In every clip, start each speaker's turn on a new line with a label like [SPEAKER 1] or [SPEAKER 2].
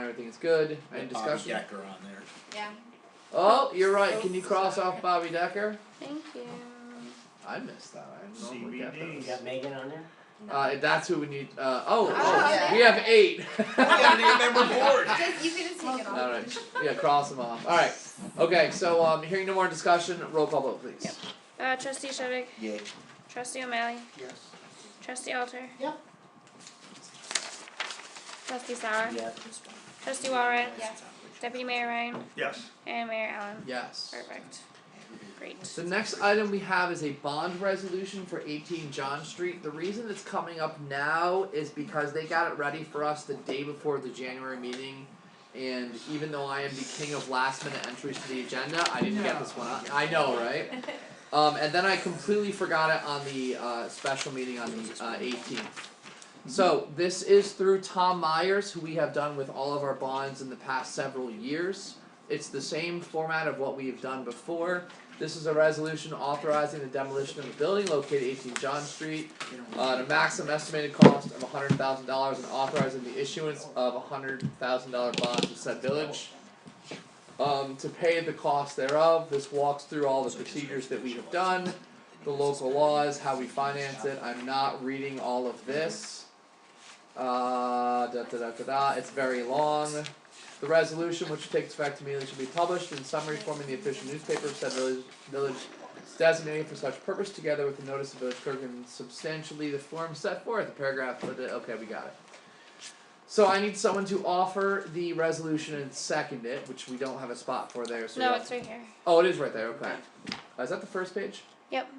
[SPEAKER 1] everything is good.
[SPEAKER 2] I
[SPEAKER 1] Any
[SPEAKER 2] had
[SPEAKER 1] discussion?
[SPEAKER 2] Bobby Decker on there.
[SPEAKER 3] Yeah.
[SPEAKER 1] Oh, you're right. Can you cross off Bobby Decker?
[SPEAKER 3] Thank you.
[SPEAKER 1] I missed that. I normally get
[SPEAKER 2] CBD.
[SPEAKER 4] You
[SPEAKER 1] those.
[SPEAKER 4] got Megan on there?
[SPEAKER 1] Uh, that's who we need. Uh, oh,
[SPEAKER 3] Oh,
[SPEAKER 1] oh,
[SPEAKER 3] yeah.
[SPEAKER 1] we have eight.
[SPEAKER 3] Just, you can just take it off.
[SPEAKER 1] All right. Yeah, cross them off. All right. Okay. So, um, hearing no more discussion, roll call vote, please.
[SPEAKER 3] Yep.
[SPEAKER 5] Uh, trustee Shevik,
[SPEAKER 2] Yay.
[SPEAKER 5] trustee O'Malley,
[SPEAKER 4] Yes.
[SPEAKER 5] trustee Alter.
[SPEAKER 4] Yep.
[SPEAKER 5] Trustee Sauer,
[SPEAKER 4] Yes.
[SPEAKER 5] trustee Walrath,
[SPEAKER 3] Yeah.
[SPEAKER 5] deputy mayor Ryan,
[SPEAKER 6] Yes.
[SPEAKER 5] and mayor Allen.
[SPEAKER 1] Yes.
[SPEAKER 5] Perfect. Great.
[SPEAKER 1] The next item we have is a bond resolution for eighteen John Street. The reason it's coming up now is because they got it ready for us the day before the January meeting. And even though I am the king of last minute entries to the agenda, I didn't get this one on, I know, right? Um, and then I completely forgot it on the uh special meeting on the uh eighteenth. So this is through Tom Myers, who we have done with all of our bonds in the past several years. It's the same format of what we have done before. This is a resolution authorizing the demolition of a building located eighteen John Street. Uh, at a maximum estimated cost of hundred thousand dollars and authorizing the issuance of hundred thousand dollar bonds to said village. Um, to pay the cost thereof, this walks through all the procedures that we have done, the local laws, how we finance it, I'm not reading all of this. Uh, da da da da da, it's very long. The resolution, which takes effect immediately, should be published in summary form in the official newspaper of said village, village designated for such purpose, together with the notice of village clerk and substantially the form set forth, the paragraph, but, uh, okay, we got it. So I need someone to offer the resolution and second it, which we don't have a spot for there, so.
[SPEAKER 5] No,
[SPEAKER 1] we'll-
[SPEAKER 5] it's right here.
[SPEAKER 1] Oh, it is right there, okay. Uh, is that the first page?
[SPEAKER 5] Yep.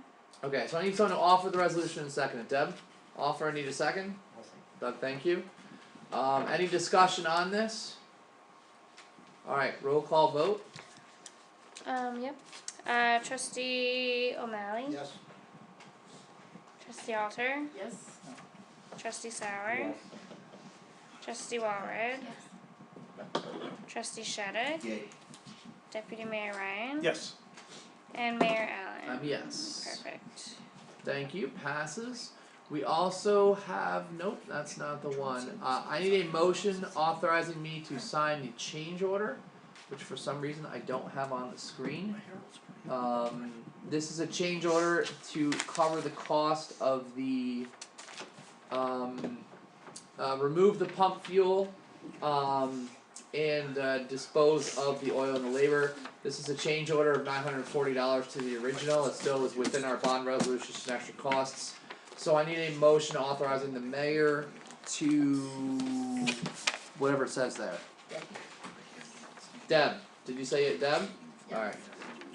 [SPEAKER 1] Okay, so I need someone to offer the resolution and second it. Deb, offer, I need a second.
[SPEAKER 4] I'll say.
[SPEAKER 1] Doug, thank you. Um, any discussion on this? Alright, roll call vote.
[SPEAKER 5] Um, yep. Uh, trustee O'Malley,
[SPEAKER 4] Yes.
[SPEAKER 5] trustee Alter,
[SPEAKER 3] Yes.
[SPEAKER 5] trustee Sauer, trustee Walrath, trustee Shevik,
[SPEAKER 2] Yay.
[SPEAKER 5] deputy mayor Ryan,
[SPEAKER 6] Yes.
[SPEAKER 5] and mayor
[SPEAKER 1] Um,
[SPEAKER 5] Allen.
[SPEAKER 1] yes.
[SPEAKER 5] Perfect.
[SPEAKER 1] Thank you, passes. We also have, nope, that's not the one. Uh, I need a motion authorizing me to sign the change order, which for some reason I don't have on the screen. Um, this is a change order to cover the cost of the, um, uh, remove the pump fuel, um, and, uh, dispose of the oil and the labor. This is a change order of nine hundred and forty dollars to the original, it still is within our bond resolution and extra costs. So I need a motion authorizing the mayor to, whatever it says there. Deb, did you say it, Deb? Alright.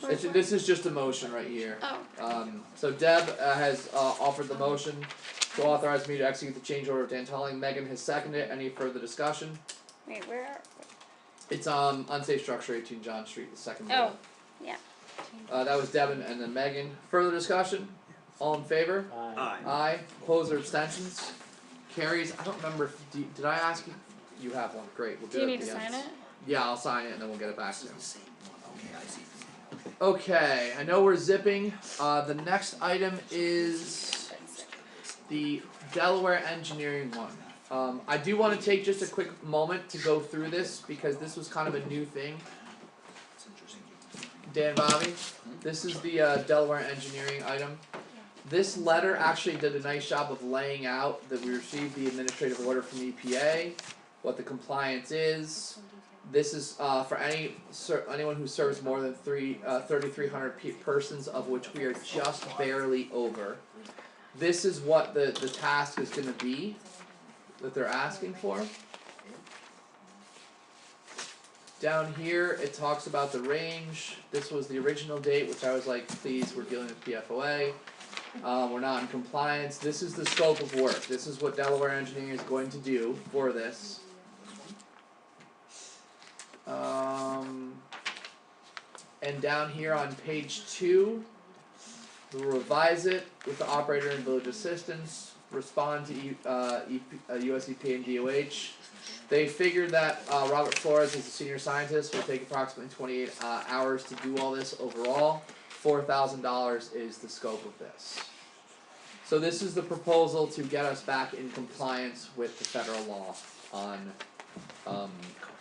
[SPEAKER 1] It's, this is just a motion right here.
[SPEAKER 5] Oh,
[SPEAKER 1] Um, so Deb uh, has uh, offered the motion to authorize me to execute the change order of Dan Telling. Megan has seconded it. Any further discussion?
[SPEAKER 5] wait, where are,
[SPEAKER 1] It's um unsafe structure, 18 John Street, the second
[SPEAKER 5] oh,
[SPEAKER 1] bullet. Uh, that was Deb and, and then Megan. Further discussion? All in favor?
[SPEAKER 4] Aye.
[SPEAKER 6] Aye.
[SPEAKER 1] Aye. Opposed or abstentions? Carries. I don't remember. If, do, did I ask you? You have one. Great. We'll do,
[SPEAKER 5] do you
[SPEAKER 1] it
[SPEAKER 5] need
[SPEAKER 1] at
[SPEAKER 5] to
[SPEAKER 1] the
[SPEAKER 5] sign
[SPEAKER 1] end.
[SPEAKER 5] it?
[SPEAKER 1] Yeah, I'll sign it and then we'll get it back to you.
[SPEAKER 2] Okay, I see.
[SPEAKER 1] Okay, I know we're zipping. Uh, the next item is the Delaware engineering one. Um, I do want to take just a quick moment to go through this because this was kind of a new thing.
[SPEAKER 2] It's interesting.
[SPEAKER 1] Dan Bobby, this is the uh, Delaware engineering item. This letter actually did a nice job of laying out that we received the administrative order from EPA, what the compliance is, this is uh for any ser- anyone who serves more than three uh thirty three hundred pe- persons of which we are just barely over. This is what the the task is gonna be that they're asking for. Down here, it talks about the range. This was the original date, which I was like, please, we're dealing with PFOA. Uh, we're not in compliance. This is the scope of work. This is what Delaware Engineering is going to do for this. Um, and down here on page two, we'll revise it with the operator and village assistance, respond to E- uh, EP, uh, US EPA and DOH. They figured that uh, Robert Flores is a senior scientist, will take approximately 28 uh, hours to do all this overall. $4,000 is the scope of this. So this is the proposal to get us back in compliance with the federal law on um,